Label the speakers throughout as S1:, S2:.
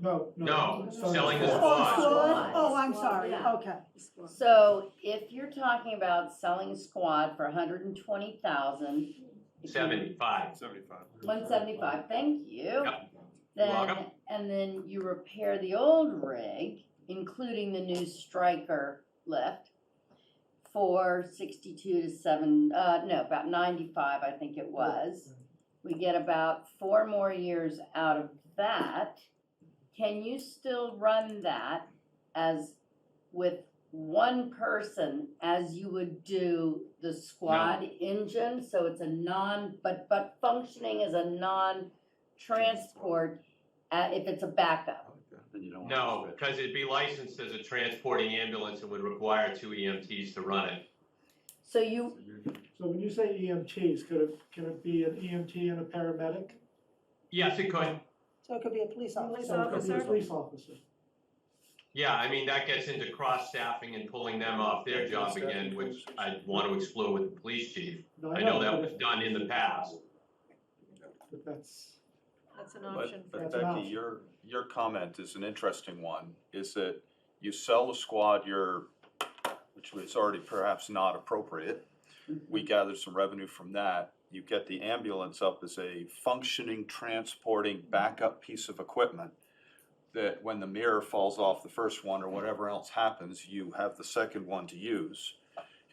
S1: vote.
S2: No, selling
S1: the
S2: is
S3: squad.
S4: Squad.
S3: Oh, I'm
S4: Squad,
S3: sorry,
S4: yeah.
S3: okay.
S4: So if you're talking about selling squad for hundred and twenty thousand.
S2: seventy-five.
S5: Seventy-five.
S4: One seventy-five, thank you.
S2: Yeah.
S4: Then,
S2: welcome.
S4: and then you repair the old rig, including the new striker lift. For sixty-two to seven, uh, no, about ninety-five, I think it was. We get about four more years out of that. Can you still run that as with one person as you would do the squad engine? So it's a non, but, but functioning as a non-transport, uh, if it's a backup.
S6: Then you don't want to
S2: No,
S6: switch.
S2: because it'd be licensed as a transporting ambulance and would require two EMTs to run it.
S4: So you,
S1: So when you say E EMTs, could it, could it be an EMT and a paramedic?
S2: Yes, it could.
S3: So it could be a police officer.
S1: So it could be a
S7: officer.
S1: Police officer.
S2: Yeah, I mean, that gets into cross-staffing and pulling them off their job again, which I'd want to explore with the police chief.
S1: No,
S2: I know that
S1: but
S2: was
S1: if-
S2: done in the past.
S1: But that's,
S7: That's an option.
S6: But,
S1: for-
S6: but
S1: That's an
S6: Becky,
S1: option.
S6: your, your comment is an interesting one, is that you sell the squad your, which was already perhaps not appropriate. We gather some revenue from that. You get the ambulance up as a functioning, transporting, backup piece of equipment that when the mirror falls off the first one or whatever else happens, you have the second one to use.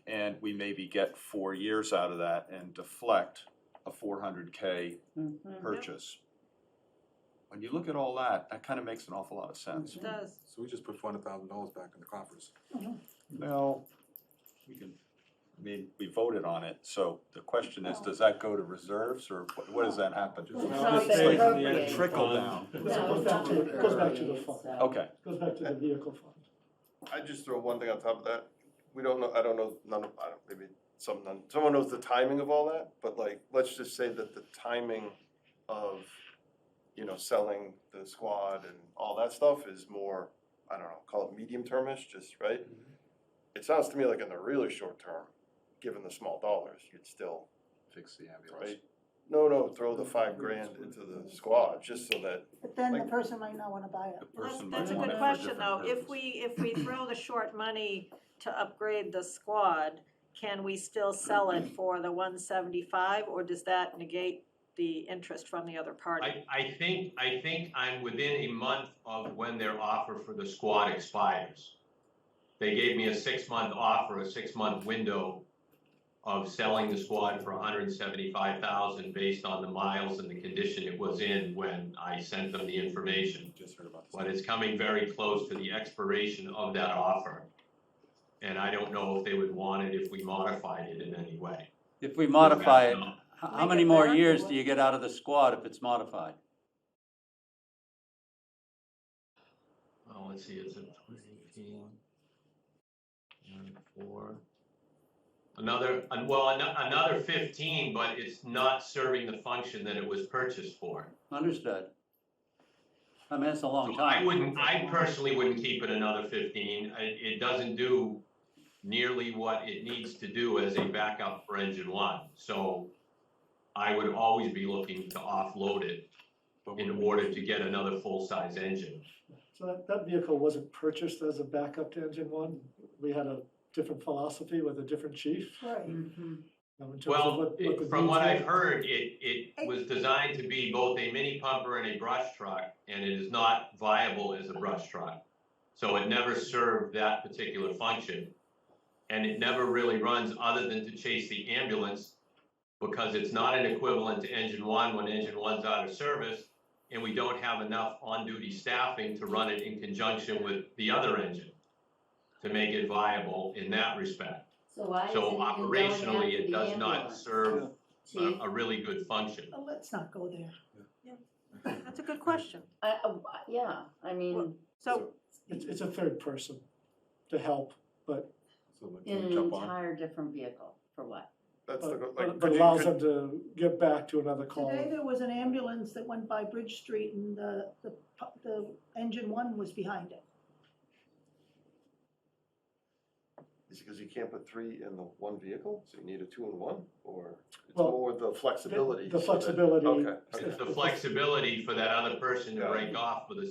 S6: And we maybe get four years out of that and deflect a four hundred K
S4: mhm.
S6: purchase. When you look at all that, that kind of makes an awful lot of sense.
S7: It does.
S5: So we just put four hundred thousand dollars back in the coffers.
S6: Well, we can, I mean, we voted on it, so the question is, does that go to reserves or what, what does that happen?
S5: It's Well,
S4: not
S6: It's like
S4: appropriate.
S6: Trickle down.
S1: it
S4: No,
S1: goes
S4: it's
S1: back
S4: not
S1: to, it goes back to the
S4: appropriate,
S1: fund,
S4: so.
S6: Okay,
S1: It goes back to the vehicle fund.
S8: I just throw one thing on top of that. We don't know, I don't know, none of, I don't, maybe some, none, someone knows the timing of all that, but like, let's just say that the timing of, you know, selling the squad and all that stuff is more, I don't know, call it medium termish, just, right?
S9: Mm-hmm.
S8: It sounds to me like in the really short term, given the small dollars, you'd still,
S6: fix the ambulance.
S8: right? No, no, throw the five grand into the squad, just so that,
S3: But then the
S8: Like-
S3: person might not wanna buy it.
S6: The
S7: Well, That's,
S6: person might
S7: that's a
S6: want
S7: good
S6: it for
S7: question,
S6: different
S7: though. If
S6: purpose.
S7: we, if we throw the short money to upgrade the squad, can we still sell it for the one seventy-five, or does that negate the interest from the other party?
S2: I, I think, I think I'm within a month of when their offer for the squad expires. They gave me a six-month offer, a six-month window of selling the squad for hundred and seventy-five thousand based on the miles and the condition it was in when I sent them the information.
S5: Just heard about this.
S2: But it's coming very close to the expiration of that offer. And I don't know if they would want it if we modified it in any way.
S9: If we modify it,
S2: Yeah.
S9: h- how
S7: Make
S9: many
S7: it
S9: more
S7: better.
S9: years do you get out of the squad if it's modified?
S2: Well, Oh, let's see, it's a eighteen. Four. Another, an- well, ano- another fifteen, but it's not serving the function that it was purchased for.
S9: Understood. I mean, that's a long
S2: So I
S9: time.
S2: wouldn't, I personally wouldn't keep it another fifteen. I- It, doesn't do nearly what it needs to do as a backup for engine one. So I would always be looking to offload it
S5: But
S2: in
S5: we-
S2: order to get another full-size engine.
S1: So that, that vehicle wasn't purchased as a backup to engine one. We had a different philosophy with a different chief.
S3: Right.
S4: Mhm.
S1: you know, in terms of
S2: Well,
S1: what- what the
S2: it- from what
S1: needs
S2: I've
S1: were.
S2: heard, it, it was designed to be both a mini pumper and a brush truck, and it is not viable as a brush truck. So it never served that particular function. And it never really runs other than to chase the ambulance because it's not an equivalent to engine one when engine one's out of service. And we don't have enough on-duty staffing to run it in conjunction with the other engine to make it viable in that respect.
S4: So why
S2: So
S4: isn't it going
S2: operationally,
S4: after
S2: it
S4: the
S2: does not
S4: ambulance,
S2: serve uh,
S4: chief?
S2: a, a really good function.
S3: But let's not go there.
S7: That's a good question.
S4: I, I- yeah, I mean,
S7: So,
S1: It's, it's a third person to help, but,
S5: So like,
S4: in
S5: can we
S4: an
S5: jump on?
S4: entire different vehicle, for what?
S8: that's the,
S1: but but
S8: like. could you-
S1: uh, allows
S8: could-
S1: them to get back to another call.
S3: Today, there was an ambulance that went by Bridge Street and the, the, pu- the engine one was behind it.
S8: Is it because you can't put three in the one vehicle, so you need a two and one, or it's
S1: Well,
S8: more the flexibility?
S1: the
S8: so that-
S1: flexibility.
S8: Okay. okay.
S2: The flexibility for that other person to
S8: Yeah.
S2: break off with a